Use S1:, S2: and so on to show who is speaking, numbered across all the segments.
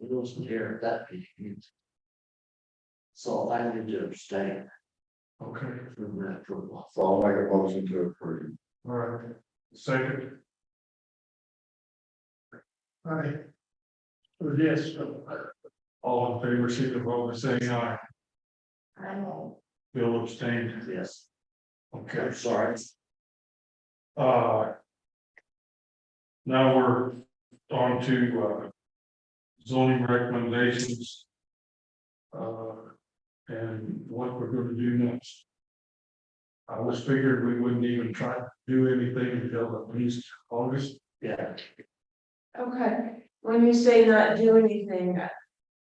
S1: Lewis was here at that meeting. So I need to abstain
S2: Okay,
S1: from that approval.
S3: So I'll make a motion to approve.
S2: all right, second. All right. So Yes. All in favor, signify by saying aye.
S1: I know.
S2: Bill abstained.
S1: Yes,
S2: Okay,
S1: I'm sorry.
S2: uh. Now we're on to, uh, zoning recommendations. Uh, and what we're gonna do next. I was figured we wouldn't even try to do anything until at least August.
S1: Yeah,
S4: Okay, when you say not do anything,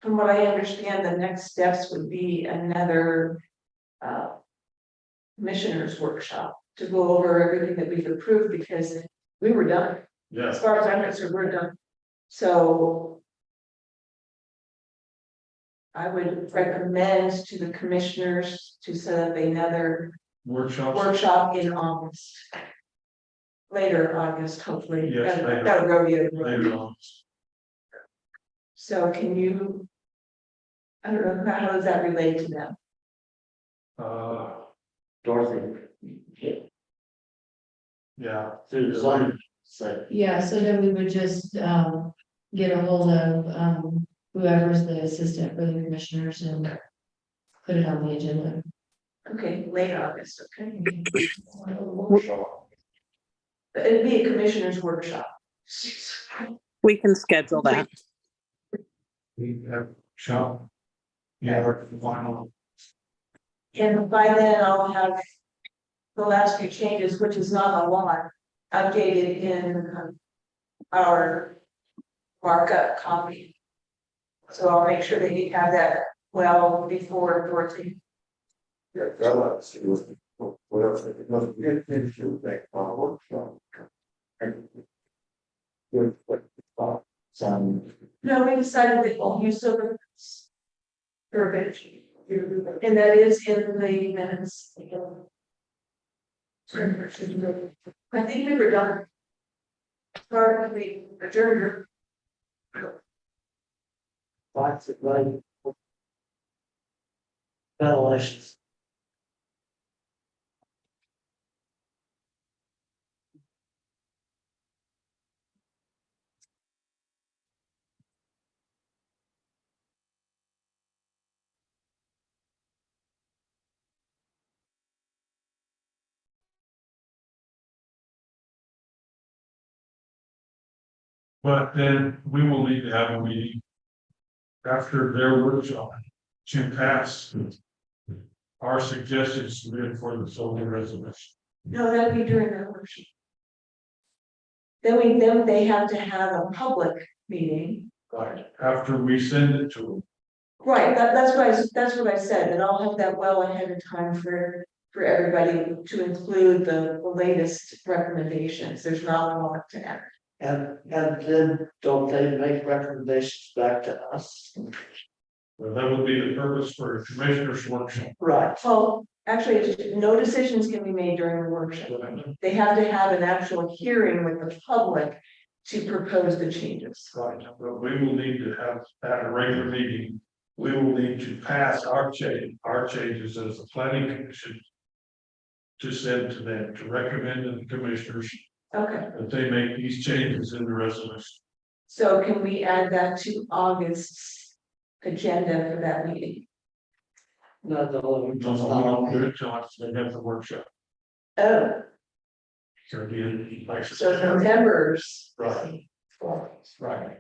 S4: from what I understand, the next steps would be another. uh, Commissioners workshop to go over everything that we've approved because we were done, as
S2: Yes.
S4: far as I'm concerned, we're done, so. I would recommend to the commissioners to set up another
S2: Workshops,
S4: workshop in August. Later August, hopefully,
S2: Yes,
S4: I've
S2: later.
S4: got a rodeo.
S2: later on.
S4: So can you? I don't know, how does that relate to them?
S2: Uh,
S1: Dorothy,
S2: yeah,
S1: through the line, said,
S5: Yeah, so then we would just um get a hold of um whoever's the assistant for the commissioners and. Put it on the agenda.
S4: Okay, late August, okay,
S3: Workshop.
S4: But it'd be a commissioners workshop.
S6: We can schedule that.
S2: we have shop. Yeah, our final,
S4: And by then I'll have. The last few changes, which is not a lot, updated in um, our markup copy. So I'll make sure that you have that well before Dorothy.
S3: Yeah, I like to see what, what else, because we didn't finish your thing, our workshop. And- Good, but, uh, some,
S4: No, we decided that we'll use some of this verbiage, and that is in the minutes. I think we were done. Sorry, we adjourned.
S1: lots of money. Ventilations.
S2: but then we will need to have a meeting. After their workshop, to pass. Our suggestions submitted for the zoning resolution.
S4: No, that'd be during the workshop. Then we, then they have to have a public meeting.
S2: Right. After we send it to them,
S4: Right, that, that's what I, s- that's what I said, and I'll have that well ahead of time for, for everybody to include the, the latest recommendations. There's not a lot to add.
S1: And, and then don't they make recommendations back to us?
S2: Well, that would be the purpose for a commissioner's workshop.
S1: Right,
S4: Well, actually, it's- no decisions can be made during the workshop.
S2: Right.
S4: They have to have an actual hearing with the public to propose the changes.
S2: But we will need to have, at a regular meeting, we will need to pass our change, our changes as a planning commission. To send to them, to recommend to the commissioners
S4: Okay,
S2: that they make these changes in the resolution.
S4: so can we add that to August's agenda for that meeting?
S1: not the whole.
S2: No, no, we don't do it till after they have the workshop.
S4: Oh,
S2: So it'd be in- like-
S4: so November's.
S2: Right. Right.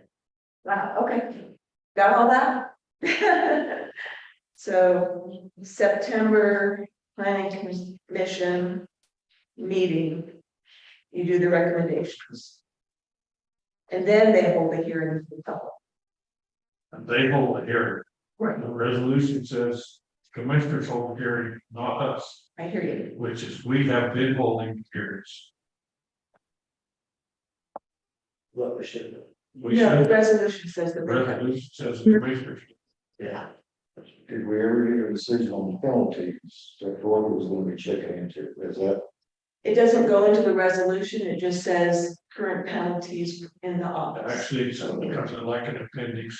S4: Wow, okay, got all that? So September planning commission meeting, you do the recommendations. And then they hold the hearing for the public.
S2: And they hold the hearing. The resolution says commissioners hold hearing, not us.
S4: I hear you.
S2: which is we have been holding hearings.
S1: What we should, do.
S2: We
S4: No, the
S2: should,
S4: resolution says that. they have-
S2: resolution says the commissioners,
S1: yeah,
S3: did we ever get a decision on the penalties that Florida was gonna be checking into, is that,
S4: It doesn't go into the resolution, it just says current penalties in the office.
S2: actually, so it becomes like an appendix